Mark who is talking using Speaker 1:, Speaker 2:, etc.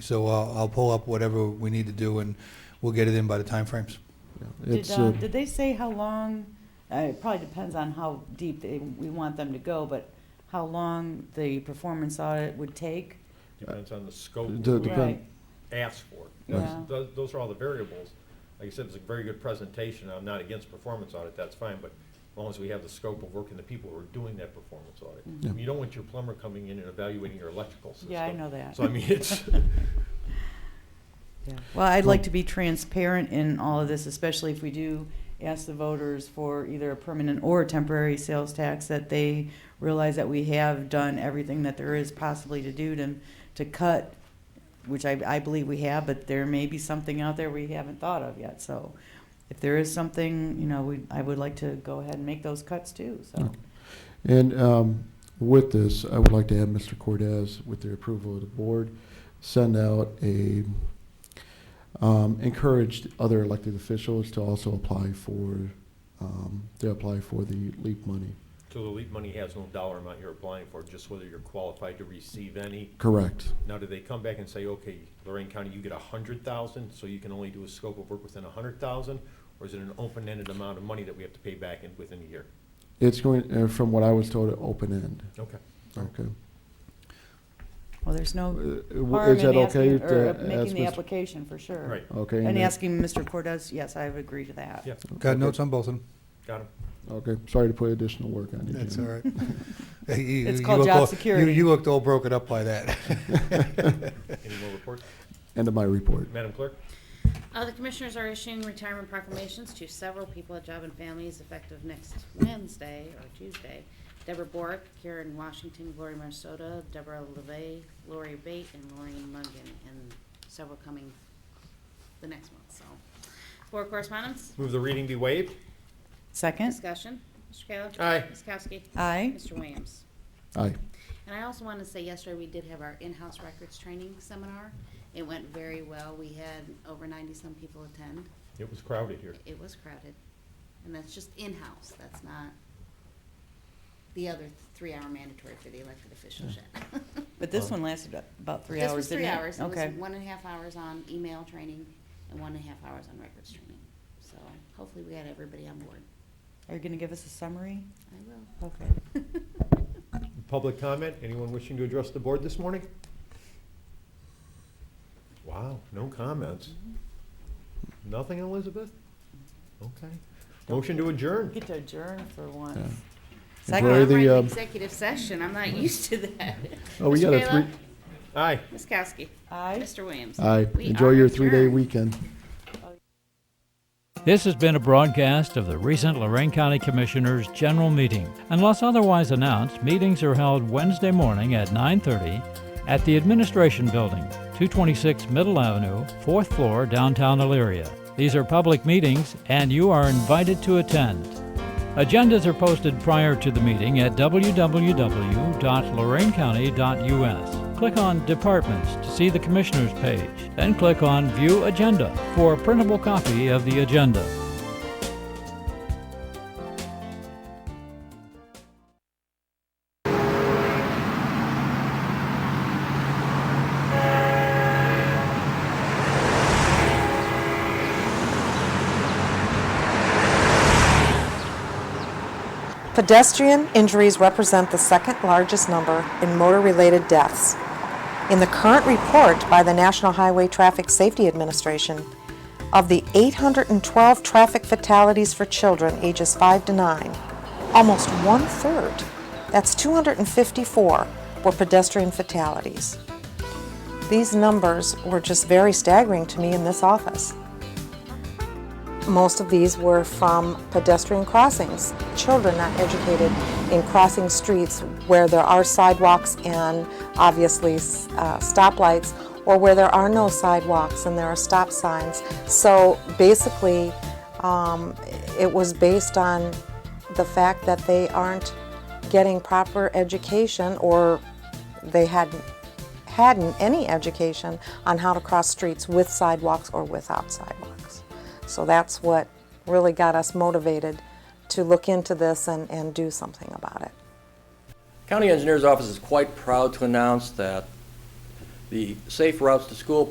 Speaker 1: So I'll, I'll pull up whatever we need to do, and we'll get it in by the timeframes.
Speaker 2: Did,
Speaker 3: It's,
Speaker 2: uh,
Speaker 3: uh,
Speaker 2: did they say how long, uh, it probably depends on how deep they, we want them to go, but how long the performance audit would take?
Speaker 4: Depends on the scope
Speaker 3: It
Speaker 4: that
Speaker 3: depend-
Speaker 4: we
Speaker 2: Right,
Speaker 4: ask for.
Speaker 2: Yeah.
Speaker 4: That's- tho- Those are all the variables. Like you said, it's a very good presentation. I'm not against performance audit, that's fine, but as long as we have the scope of work and the people who are doing that performance audit.
Speaker 3: Yeah.
Speaker 4: You don't want your plumber coming in and evaluating your electrical system.
Speaker 2: Mm-hmm. Yeah, I know that.
Speaker 4: So I mean, it's,
Speaker 2: Yeah. Well, I'd like to be transparent in all of this, especially if we do ask the voters for either a permanent or a temporary sales tax, that they realize that we have done everything that there is possibly to do to, to cut, which I, I believe we have, but there may be something out there we haven't thought of yet, so if there is something, you know, we, I would like to go ahead and make those cuts too,
Speaker 3: Hmm.
Speaker 2: so.
Speaker 3: and um, with this, I would like to have Mr. Cortez, with the approval of the board, send out a, um, encourage other elected officials to also apply for, um, to apply for the LEAP money.
Speaker 4: so the LEAP money has no dollar amount you're applying for, just whether you're qualified to receive any.
Speaker 3: Correct.
Speaker 4: Now, do they come back and say, okay, Lorraine County, you get a hundred thousand, so you can only do a scope of work within a hundred thousand? Or is it an open-ended amount of money that we have to pay back in, within a year?
Speaker 3: It's going, uh, from what I was told, an open end.
Speaker 4: Okay.
Speaker 3: Okay.
Speaker 2: Well, there's
Speaker 3: Uh,
Speaker 2: no
Speaker 3: w-
Speaker 2: harm
Speaker 3: Is that
Speaker 2: in
Speaker 3: okay?
Speaker 2: asking, or uh,
Speaker 3: to ask
Speaker 2: making the
Speaker 3: Mr.
Speaker 2: application, for sure.
Speaker 4: Right,
Speaker 3: Okay.
Speaker 2: And
Speaker 3: that-
Speaker 2: asking Mr. Cortez, yes, I would agree to that.
Speaker 4: yeah,
Speaker 1: Got
Speaker 3: okay.
Speaker 1: notes on both of them.
Speaker 4: got him.
Speaker 3: Okay, sorry to put additional work on you.
Speaker 1: That's all
Speaker 3: Jim.
Speaker 1: right. Hey, you-
Speaker 2: It's
Speaker 1: you
Speaker 2: called
Speaker 1: look
Speaker 2: job
Speaker 1: all-
Speaker 2: security.
Speaker 1: You, you looked all broken up by that.
Speaker 4: Any more reports?
Speaker 3: End of my report.
Speaker 4: Madam Clerk?
Speaker 5: Uh, the commissioners are issuing retirement proclamations to several people at Job and Families effective next Wednesday or Tuesday. Deborah Bork, Karen Washington, Gloria Minnesota, Deborah LeVay, Lori Bate, and Lorraine Mungan, and several coming the next month, so. Board correspondence,
Speaker 4: Move the reading be waived.
Speaker 2: Second?
Speaker 5: discussion, Mr. Kayla.
Speaker 4: Aye.
Speaker 5: Ms. Kowski.
Speaker 2: Aye.
Speaker 5: Mr. Williams.
Speaker 3: Aye.
Speaker 5: And I also want to say, yesterday we did have our in-house records training seminar. It went very well. We had over ninety-some people attend.
Speaker 4: It was crowded here.
Speaker 5: It was crowded. And that's just in-house, that's not the other three-hour mandatory for the elected officials yet.
Speaker 2: But this one lasted about three
Speaker 5: This
Speaker 2: hours,
Speaker 5: was
Speaker 2: didn't
Speaker 5: three
Speaker 2: it?
Speaker 5: hours. It was
Speaker 2: Okay.
Speaker 5: one and a half hours on email training and one and a half hours on records training. So hopefully we got everybody on board.
Speaker 2: Are you gonna give us a summary?
Speaker 5: I will.
Speaker 2: Okay.
Speaker 4: Public comment, anyone wishing to address the board this morning? Wow, no comments. Nothing, Elizabeth? Okay. Motion to adjourn.
Speaker 2: Get to adjourn for
Speaker 3: Yeah.
Speaker 2: once.
Speaker 3: Where are
Speaker 5: I'm
Speaker 2: Second,
Speaker 3: the,
Speaker 5: running
Speaker 3: um,
Speaker 5: executive session, I'm not used to that.
Speaker 3: Oh, we
Speaker 5: Mr.
Speaker 3: got a
Speaker 5: Kayla?
Speaker 3: three,
Speaker 4: Aye.
Speaker 5: Ms. Kowski.
Speaker 2: aye?
Speaker 5: Mr. Williams.
Speaker 3: aye.
Speaker 5: We
Speaker 3: Enjoy
Speaker 5: are
Speaker 3: your three-day
Speaker 5: adjourned.
Speaker 3: weekend.
Speaker 6: This has been a broadcast of the recent Lorraine County Commissioners' General Meeting. Unless otherwise announced, meetings are held Wednesday morning at 9:30 at the Administration Building, 226 Middle Avenue, 4th floor, downtown Elyria. These are public meetings and you are invited to attend. Agendas are posted prior to the meeting at www.lorainecounty.us. Click on Departments to see the Commissioners page, then click on View Agenda for a printable copy of the agenda.
Speaker 7: Pedestrian injuries represent the second largest number in motor related deaths. In the current report by the National Highway Traffic Safety Administration, of the 812 traffic fatalities for children ages 5 to 9, almost one third, that's 254, were pedestrian fatalities. These numbers were just very staggering to me in this office. Most of these were from pedestrian crossings, children not educated in crossing streets where there are sidewalks and obviously s- uh, stoplights, or where there are no sidewalks and there are stop signs. So basically, um, it was based on the fact that they aren't getting proper education or they hadn't hadn't any education on how to cross streets with sidewalks or without sidewalks. So that's what really got us motivated to look into this and, and do something about it.
Speaker 8: County Engineer's Office is quite proud to announce that The Safe Routes to School